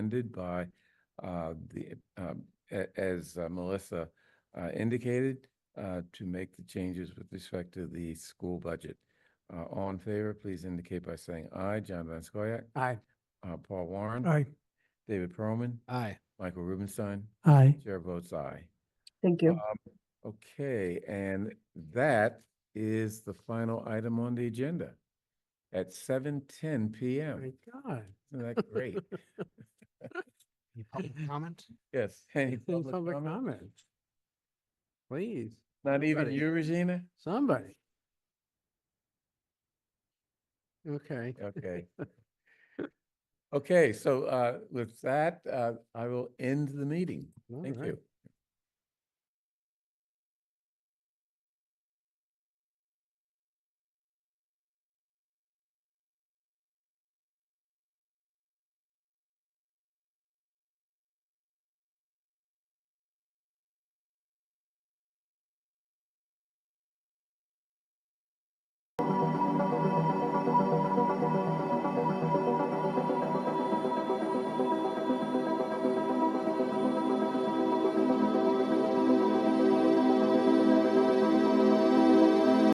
ended by uh, the, um, a- as uh, Melissa uh, indicated, uh, to make the changes with respect to the school budget. Uh, All in favor, please indicate by saying aye. John Van Scoyac, Aye. uh, Paul Warren. Aye. David Perlman, Aye. Michael Rubenstein. Aye. Chair votes aye. Um, Thank you. Okay, and that is the final item on the agenda at seven ten PM. Thank God. Isn't that great? Any public comment? Yes. Any Any public public comment? comment? Please, Not even Nobody. you, Regina? somebody. Okay. Okay. Okay, so uh, with that, uh, I will end the meeting. all Thank right. you.